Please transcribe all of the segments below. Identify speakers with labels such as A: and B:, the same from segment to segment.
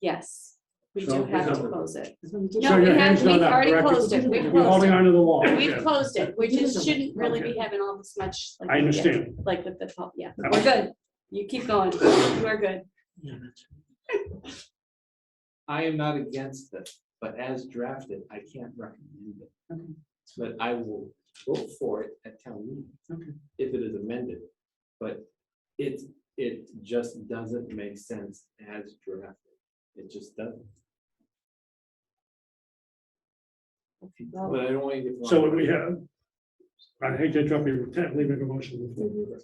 A: Yes, we
B: So
A: do
B: we
A: have to
B: don't-
A: close it.
B: So
A: No,
B: your
A: we have,
B: hand's not
A: we've
B: up,
A: already
B: correct?
A: closed it. We've
B: We're
A: closed
B: holding
A: it.
B: on to the wall.
A: We've
B: Okay.
A: closed it. We just shouldn't really
B: Okay.
A: be having all this much. like
B: I
A: we did,
B: understand.
A: Like with the, pub- yeah,
B: I
A: we're good. You keep going. You are good.
C: I am not against it, but as drafted, I can't recommend it.
A: Okay.
C: But I will vote for it at town meeting.
A: Okay.
C: If it is amended, but it, it just doesn't make sense as drafted. It just doesn't. But I don't want you to.
B: So what we have, I hate to interrupt you, we can't leave it a motion on the
A: Mm-hmm.
B: floor.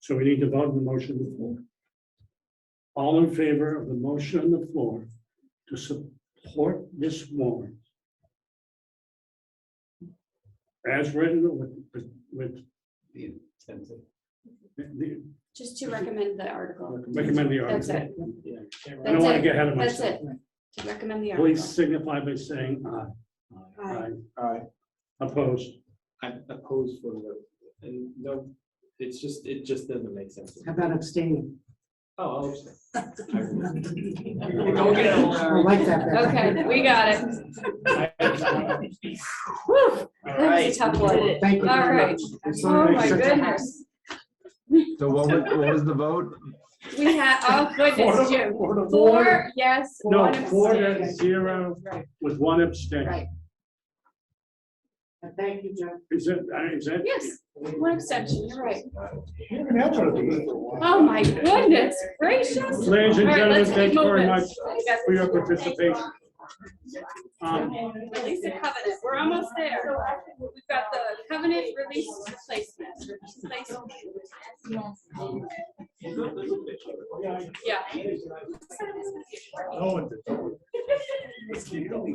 B: So we need to vote on the motion on the floor. All in favor of the motion on the floor to support this warrant? As written with, with,
C: The intent of-
B: the-
A: Just to recommend the article.
B: recommend the
A: That's
B: article.
A: it.
C: Yeah.
B: I don't want
A: That's
B: to
A: it.
B: get ahead of
A: That's
B: myself.
A: it. To recommend the article.
B: Please signify by saying aye.
A: Aye.
C: Aye.
B: Opposed.
C: I'm opposed for the, and no, it's just, it just doesn't make sense.
D: How about abstaining?
C: Oh, I'll say. I will.
A: Go get 'em,
D: I like that. better.
A: Okay, we got it. Whew, That was a tough one.
D: Thank you.
A: All right.
D: It's so
A: Oh, my
D: nice.
A: goodness.
E: So what was, what was the vote?
A: We had, oh
B: Four
A: goodness,
B: to-
A: Jim.
B: four to
A: Four, yes.
B: No,
A: one
B: four to
A: abstain.
B: zero
A: Right,
B: with one abstain.
A: Right.
D: Thank you, Jeff.
B: Is that, uh, is that?
A: Yes, one exception, you're right.
B: You can have one of these.
A: Oh, my goodness gracious. All
B: Ladies and
A: right,
B: gentlemen,
A: let's
B: thank
A: keep
B: you very
A: moving.
B: much for your participation. Um,
A: Release the covenant, we're almost there. We've got the covenant release replacement. replacement. Yeah,
B: uh,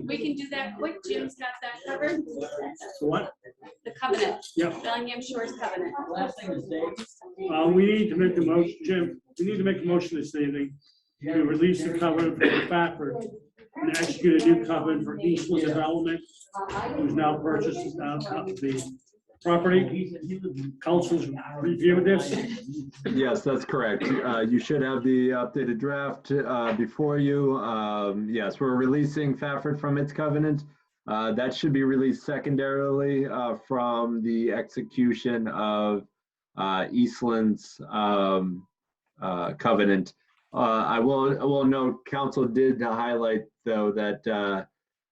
A: we can do that quick. Jim's got that covered.
B: What?
A: The covenant,
B: Yeah,
A: Bellingham Shores covenant.
B: uh, we need to make a motion, Jim, we need to make a motion this evening to release the covenant for Fafford and execute a new covenant for Eastwood Development, who's now purchased uh, uh, the property. Council's reviewed this.
E: Yes, that's correct. Uh, You should have the updated draft uh, before you. Um, Yes, we're releasing Fafford from its covenant. Uh, That should be released secondarily uh, from the execution of uh, Eastland's um, uh, covenant. Uh, I will, I will note, council did highlight, though, that uh,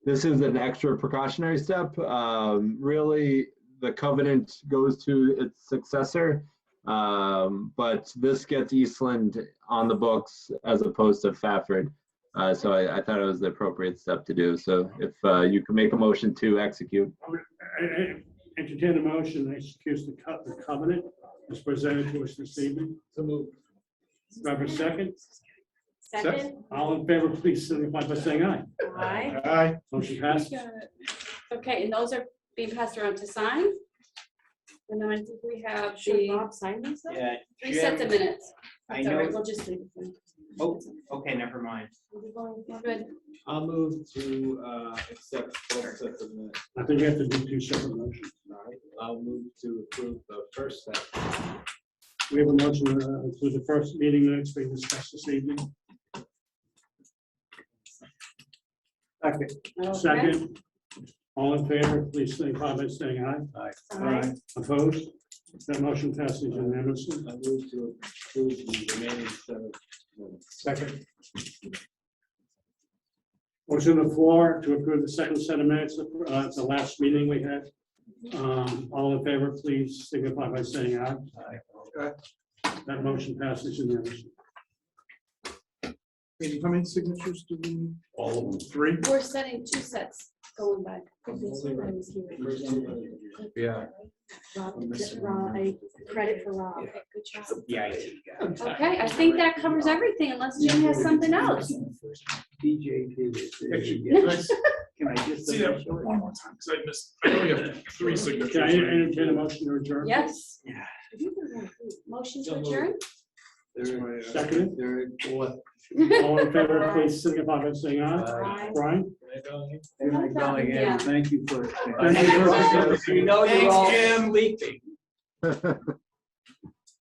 E: this is an extra precautionary step. Um, Really, the covenant goes to its successor. Um, but this gets Eastland on the books as opposed to Fafford. Uh, so I, I thought it was the appropriate step to do. So if uh, you can make a motion to execute.
B: I- I Entertain a motion to execute the co- the covenant as presented to us this evening.
C: So move.
B: Do I have a second?
A: Second.
B: All in favor, please signify by saying aye.
A: Aye.
B: Motion passed.
A: Okay, and those are being passed around to sign. And then I think we have
F: Should
A: the
F: Rob sign these? though?
G: Yeah,
A: three sets of minutes.
G: I
A: It's all right,
G: know,
A: we'll just leave it.
G: oh, okay, never mind.
F: Are we going-
A: We're Good.
C: I'll move to uh, accept both sets of minutes.
B: I think we have to do two separate motions.
C: All right, I'll move to approve the first set.
B: We have a motion uh, for the first meeting minutes we discussed this evening.
A: Okay.
B: Second, all in favor, please signify by saying aye.
A: Aye.
B: Opposed? That motion passes unanimously.
C: I move to approve the remaining seven minutes.
B: Second. Motion on the floor to approve the second set of minutes, uh, it's the last meeting we had. Um, all in favor, please signify by saying aye. Aye. That motion passes unanimously.
D: How many signatures do we need?
B: All of them. Three.
A: We're setting two sets going back.
C: First two minutes.
E: Yeah.
F: Rob, just Rob, I- Credit for Rob.
A: Okay, good job.
G: Yeah, I
A: Okay, I think that covers everything unless Jim has something else.
D: Can I just?
H: See that one more time, because I missed, I know we have three signatures.
B: Can I
H: right?
B: entertain a motion to adjourn?
A: Yes.
G: Yeah.
A: Motion
C: So
A: to
C: moved.
A: adjourn?
C: They're-
B: Second.
C: they're- what?
B: All in favor, please signify by saying aye.
A: Aye.
B: Brian?
C: Can I go?
A: Yeah.
D: Thank you for.
B: Thank you for-
G: You know you're all leaking.